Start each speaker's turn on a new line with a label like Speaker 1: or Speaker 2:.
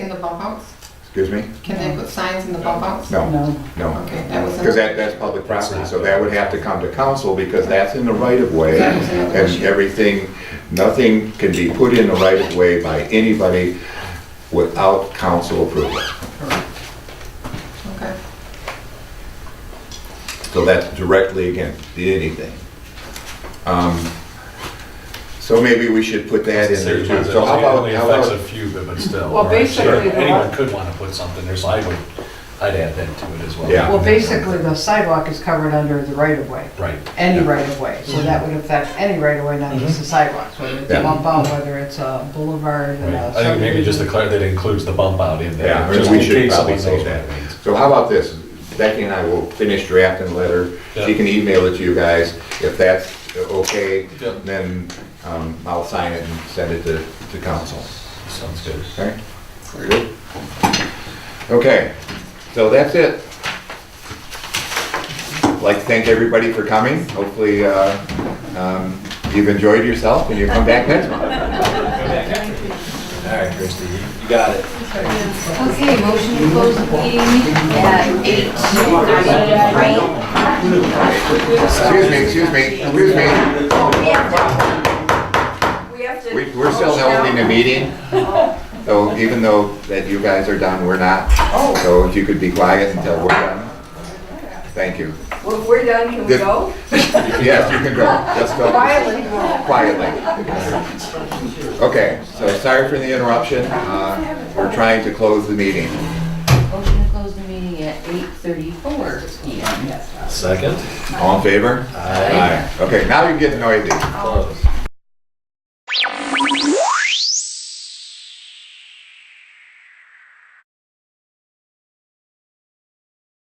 Speaker 1: the bump outs?
Speaker 2: Excuse me?
Speaker 1: Can they put signs in the bump outs?
Speaker 2: No,
Speaker 3: No,
Speaker 2: no.
Speaker 1: Okay, that was.
Speaker 2: Because that, that's public property, so that would have to come to council because that's in the right of way.
Speaker 1: That was another
Speaker 2: And
Speaker 1: issue.
Speaker 2: everything, nothing can be put in the right of way by anybody without council approval.
Speaker 1: Okay,
Speaker 2: So that's directly against anything. Um, So maybe we should put that in there too. So how
Speaker 4: It
Speaker 2: about,
Speaker 4: only
Speaker 2: how
Speaker 4: affects a
Speaker 2: about,
Speaker 4: few, but but still.
Speaker 5: Well,
Speaker 4: right, sure.
Speaker 5: basically, the
Speaker 4: Anyone
Speaker 5: lot-
Speaker 4: could want to put something there, so I would, I'd add that to it as well.
Speaker 2: Yeah.
Speaker 5: well, basically, the sidewalk is covered under the right of way,
Speaker 4: Right.
Speaker 5: any right of way, so that would affect any right of way, not just
Speaker 4: Mm-hmm.
Speaker 5: the sidewalks, whether it's
Speaker 2: Yeah.
Speaker 5: a bump out, whether it's a boulevard and
Speaker 4: Right.
Speaker 5: a
Speaker 4: I think maybe just
Speaker 5: subdivision.
Speaker 4: declare that includes the bump out in
Speaker 2: Yeah,
Speaker 4: there,
Speaker 2: or
Speaker 4: just
Speaker 2: we
Speaker 4: in
Speaker 2: should
Speaker 4: case
Speaker 2: probably
Speaker 4: someone
Speaker 2: say
Speaker 4: knows what
Speaker 2: that.
Speaker 4: it means.
Speaker 2: so how about this? Becky and I will finish drafting the letter. She
Speaker 4: Yeah.
Speaker 2: can email it to you guys. If that's okay,
Speaker 4: Yeah.
Speaker 2: then um, I'll sign it and send it to, to council.
Speaker 4: Sounds good.
Speaker 2: Okay? Very good. Okay, so that's it. I'd Like to thank everybody for coming. Hopefully, uh, um, you've enjoyed yourself and you come back next month.
Speaker 4: All right, Christie.
Speaker 6: Okay, motion to close the meeting at eight ninety-three.
Speaker 2: Excuse me, excuse me, excuse me.
Speaker 6: We have to.
Speaker 2: We- We're still holding a meeting, so even though that you guys are done, we're not. So if you could be quiet until we're done. Thank you.
Speaker 6: Well, If we're done, can we
Speaker 2: This-
Speaker 6: go?
Speaker 2: Yes, you can go. Just go.
Speaker 6: Quietly go.
Speaker 2: quietly. Okay, so sorry for the interruption. Uh, We're trying to close the meeting.
Speaker 6: Motion to close the meeting at eight thirty-four PM.
Speaker 4: Second?
Speaker 2: All in favor? Aye. Okay, now you're getting noisy.
Speaker 4: Close.